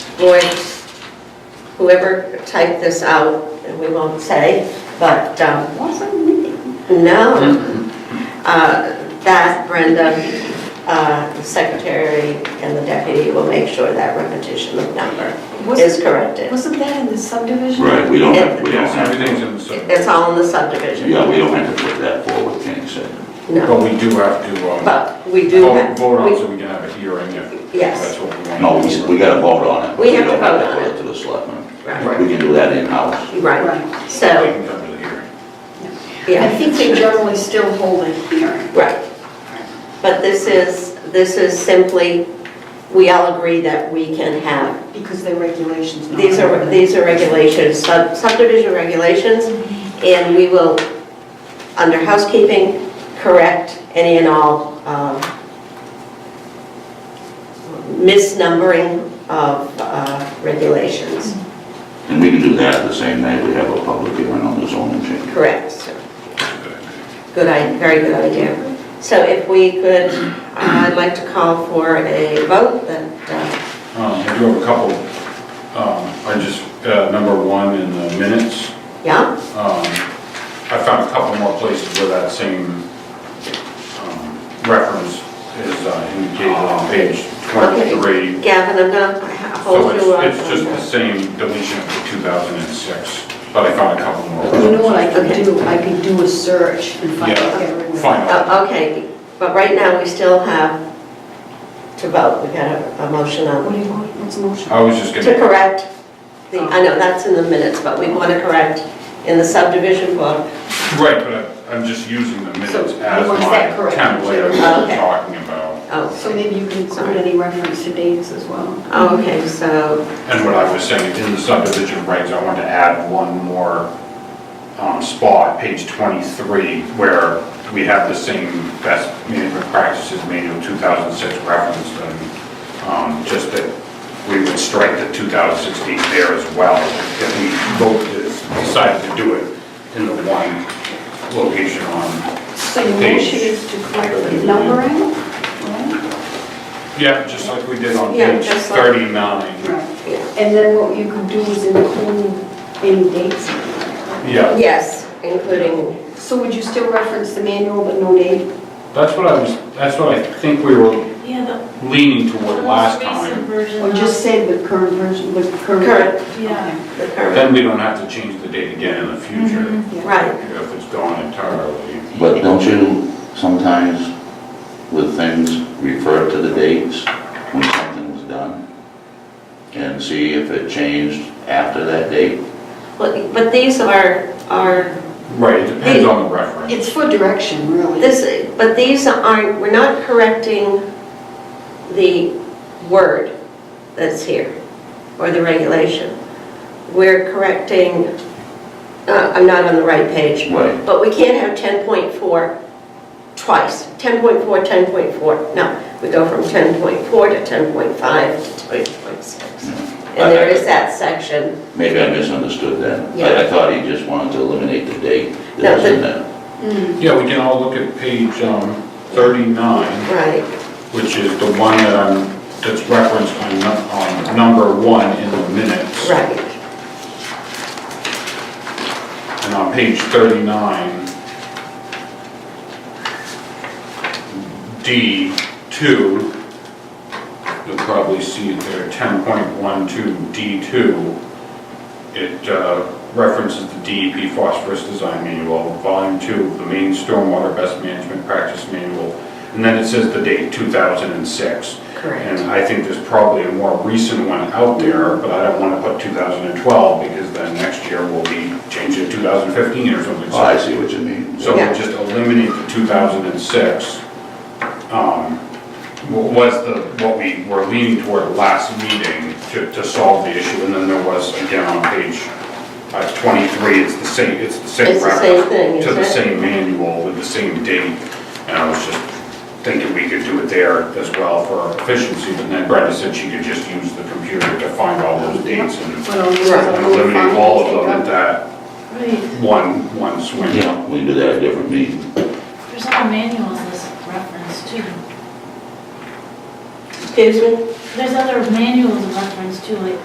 Lloyd's, whoever typed this out, and we won't say, but, um, Wasn't me. no. Mm-hmm. Uh, That Brenda, uh, the secretary and the deputy will make sure that repetition of number is Wasn't, corrected. wasn't that in the subdivision? Right, we don't have, we don't have, Everything's in the survey. It's all in the subdivision. yeah, we don't have to put that forward, Kenny said. No, But we do have to, um, but we do vote have, vote on it so we- we can have a hearing if Yes. that's what we want. No, we, we gotta vote on it. We have to don't vote to on put it. To the selectmen. right, We can do that in-house. right, We so, can come to the hearing. yeah. I think they generally still hold a hearing. Right. But this is, this is simply, we all agree that we can have, Because their regulations. not- these are, these are regulations, sub- subdivision regulations, and we will, under housekeeping, correct any and all um, misnumbering of uh, regulations. And we can do that the same night we have a public hearing on the zoning change. Correct, sir. Good, i- very good idea. So if we could, uh, I'd like to call for a vote that uh, Um, I do have a couple, um, I just, uh, number one in the minutes, Yeah, um, I found a couple more places where that same, um, reference is uh, indicated Oh. on page twenty-three. Gavin, I'm gonna ha- So hold you up. it's, it's just the same deletion of two thousand and six, but I found a couple more. You know what I Okay. could do? I could do a search and find out. their Yeah, regulations. fine. Oh, Okay, but right now, we still have to vote, we got a, a motion What on, do you want? What's the motion? I was just to gonna, correct the, I know, that's in the minutes, but we want to correct in the subdivision book. right, but I- I'm just using the minutes So, as was my that correct? template of Oh, what okay. we're talking about So Oh, maybe you can include any reference to dates as well. okay, so, and what I was saying in the subdivision regs, I wanted to add one more um, spot, page 23, where we have the same best management practices manual 2006 reference, and um, just that we would strike the 2016 there as well, if we vote to, decide to do it in the one location on So your motion is to correct the numbering, right? Yeah, just like we did on Yeah, page just like- 39. yeah. And then what you could do is include any dates. Yeah, yes, including, So would you still reference the manual but no date? that's what I was, that's what I think we were Yeah, the leaning toward last most time. recent version Or of, Oh, just say the current version, the current? Current. yeah. the current, Then we don't have to change the date again in the future Mm-hmm. right, if it's gone entirely. But don't you sometimes with things refer to the dates when something's done? And see if it changed after that date? but, but these are, are, Right, it depends on the reference. It's for direction, really. this, but these aren't, we're not correcting the word that's here, or the regulation. We're correcting, uh, I'm not on the right page, Right. but we can't have 10.4 twice. 10.4, 10.4, no, we go from 10.4 to 10.5 to 10.6. And there is that section, Maybe I misunderstood that. I- I Yeah. thought he just wanted to eliminate the date No, that was the- in there. Mm. Yeah, we can all look at page um, 39, right, which is the one that I'm, that's referenced on nu- on number one in the minutes. right, And on page 39, D2, you'll probably see it there, 10.12 D2. It uh, references the DEP phosphorus design manual, volume two of the main stormwater best management practice manual. And then it says the date 2006. And correct. I think there's probably a more recent one out there, but I don't want to put 2012 because then next year we'll be changing to 2015 or something. Oh, I see what you mean. So Yeah. we'll just eliminate the 2006. um, wa- Was the, what we were leaning toward last meeting to, to solve the issue. And then there was, again, on page uh, 23, it's the same, it's the same It's the same reference thing, To the is it? same manual with the same date. And I was just thinking we could do it there as well for efficiency. But then Brenda said she could just use the computer to find all those dates and But I'll use it. and eliminate all of them at that Right, one, one swing. Yeah, we can do that at a different meeting. there's other manuals as reference too. Excuse me? There's other manuals of reference too, like